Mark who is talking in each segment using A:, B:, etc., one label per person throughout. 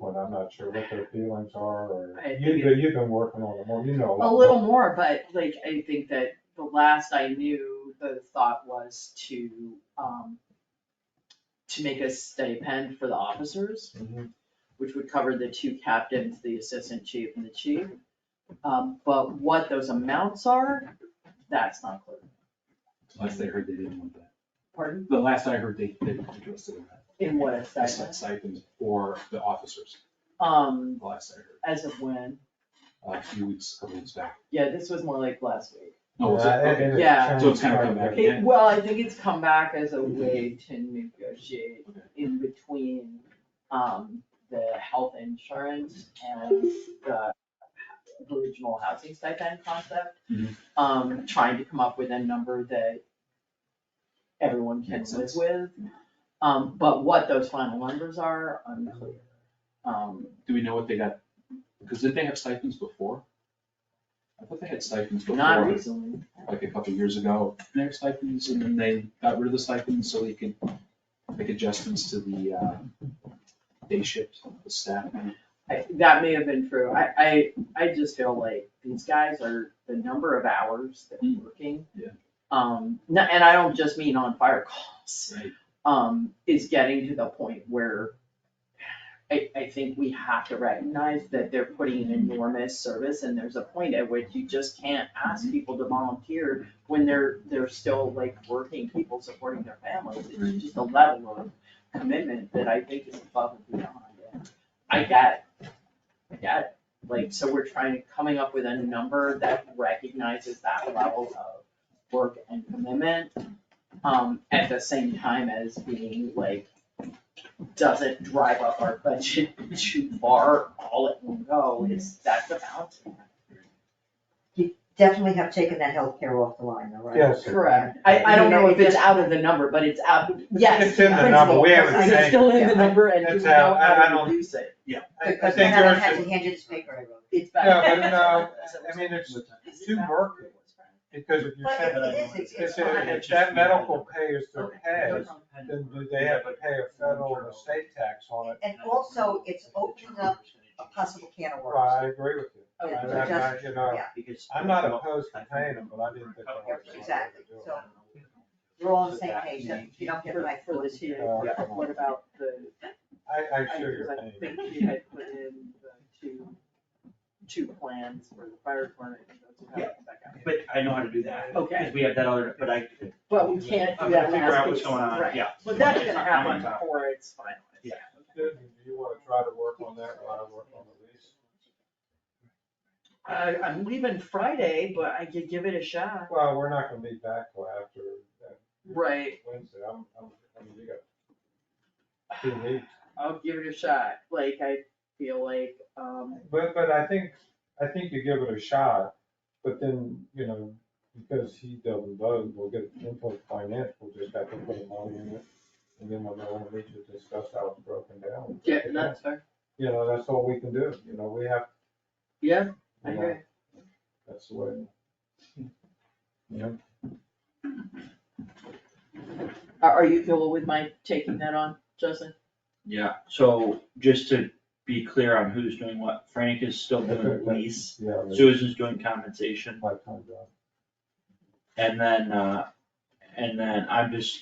A: and I'm not sure what their feelings are, or,
B: I think
A: you, but you've been working on it more, you know.
B: A
A: lot
B: little
A: more.
B: more, but like, I think that the last I knew, the thought was to, um, to make a stipend for the officers,
A: Mhm.
B: which would cover the two captains, the assistant chief and the chief. Um, but what those amounts are, that's not clear.
C: Last I heard, they didn't want that.
B: Pardon?
C: The last I heard, they, they interested in that.
B: In what a
C: That's
B: stipend,
C: like stipends for the officers,
B: um,
C: the last I
B: as of when,
C: heard, uh, a few weeks, a couple weeks back.
B: yeah, this was more like last week.
C: No, was it?
A: Yeah, it-
C: Okay.
A: it has
B: Yeah.
C: So it's kinda come
A: changed
C: back
A: quite a bit.
C: again.
B: It, well, I think it's come back as
C: Mm-hmm.
B: a way to negotiate in between, um, the health insurance and the original housing stipend concept.
C: Mhm.
B: Um, trying to come up with a number that everyone can
C: Makes
B: live
C: sense.
B: with. Um, but what those final numbers are, unclear. Um,
C: Do we know what they got? Because did they have stipends before? I thought they had stipends before.
B: not recently.
C: like a couple years ago, and their stipends, and then they got rid of the stipends so they could make adjustments to the, uh, day shift, the staff.
B: I, that may have been true. I, I, I just feel like these guys are, the number of hours that are
C: Mm.
B: working.
C: Yeah.
B: Um, no- and I don't just mean on fire calls,
C: Right.
B: um, is getting to the point where I, I think we have to recognize that they're putting an enormous service and there's a point at which you just can't ask people to volunteer when they're, they're still like working people supporting their families.
C: Right.
B: It's just a level of commitment that I think is above and beyond. And I get it. I get it. Like, so we're trying, coming up with a number that recognizes that level of work and commitment. Um, at the same time as being like doesn't drive up our budget too far all at one go is that's about.
D: Definitely have taken that healthcare off the line, though, right?
A: Yes.
B: Correct. I, I don't know if it's out of the number, but it's out, yes.
A: It's in the number, we haven't
B: principle. It's
A: changed.
B: still in the number and
A: It's
B: we know
A: out, I- I
B: how to
A: don't-
B: reduce it.
A: I- I
D: Because
A: think
D: then I
A: yours
D: had
A: is-
D: to hand you this paper I wrote.
B: It's back.
A: Yeah, but no, I mean, it's too murky, because if you
D: But
A: said,
D: it is, it's-
A: if,
D: it's
A: it-
D: fine.
A: if that medical pay is their
B: Okay.
A: pay, then do they have to pay a federal or state tax on it?
D: And also, it's opening up a possible can of
A: Well,
D: worms.
A: I agree with you.
B: Okay.
A: I- I- I- you know,
D: Yeah.
A: I'm not opposed to paying them, but I didn't think. that was-
D: Exactly, so we're all on the same page, then. if you don't get my
B: For
D: food
B: this
D: this
B: here,
D: year.
B: yeah, what about the,
A: I, I
B: I
A: share your
B: I
A: opinion.
B: think you had put in the two, two plans for the fire department. and those would have to come back out.
E: But I know how to do that.
B: Okay.
E: Because we have that other, but I,
B: But we can't do
E: I'm gonna
B: that last
E: figure out what's
B: piece,
E: going on,
B: right.
E: yeah.
B: But that's gonna
E: I'm on
B: happen
E: top.
B: before it's finalized.
E: Yeah.
A: Susan, do you wanna try to work on that while I work on the lease?
B: I, Uh, I'm leaving Friday, but I could give it a shot.
A: Well, we're not gonna be back till after that
B: Right.
A: Wednesday, I'm, I'm, I mean, you got two weeks.
B: I'll give it a shot, like, I feel like, um,
A: But, but I think, I think you give it a shot, but then, you know, because he doesn't vote, we'll get input finance, we'll just have to put a money in it. And then we'll know when we should discuss how it's broken down.
B: yeah, that's fair,
A: You know, that's all we can do, you know, we have,
B: yeah, I
A: you
B: hear
A: know,
B: you.
A: that's the way. Yeah.
B: Are, are you cool with my taking that on, Justin?
F: Yeah, so just to be clear on who's doing what, Frank is still doing the lease,
A: Yeah, I mean,
F: Susan's doing compensation,
A: my time, John.
F: and then, uh, and then I'm just,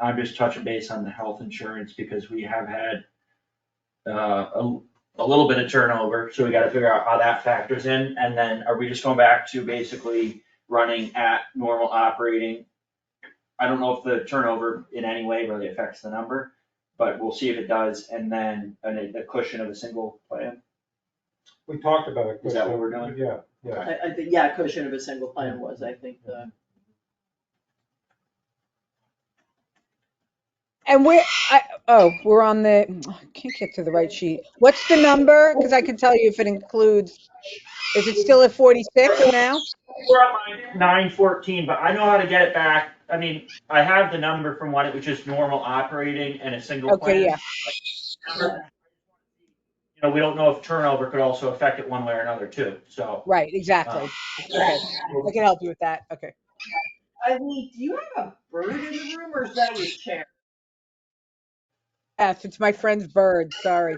F: I'm just touching base on the health insurance because we have had uh, a, a little bit of turnover, so we gotta figure out how that factors in, and then are we just going back to basically running at normal operating? I don't know if the turnover in any way really affects the number, but we'll see if it does, and then, and a cushion of a single plan.
A: We talked about it.
F: Is that what we're doing?
A: Yeah, yeah.
B: I, I think, yeah, cushion of a single plan was, I think, the,
G: And we're, I, oh, we're on the, I can't get to the right sheet. What's the number? Because I can tell you if it includes, is it still at 46 now?
F: We're on line nine fourteen, but I know how to get it back. I mean, I have the number from when it was just normal operating and a single plan.
G: Okay, yeah.
F: Number. You know, we don't know if turnover could also affect it one way or another too, so. uh,
G: Right, exactly. Okay, I can help you with that. Okay.
B: I mean, do you have a bird in the room or is that your chair?
G: Yes, it's my friend's bird, sorry.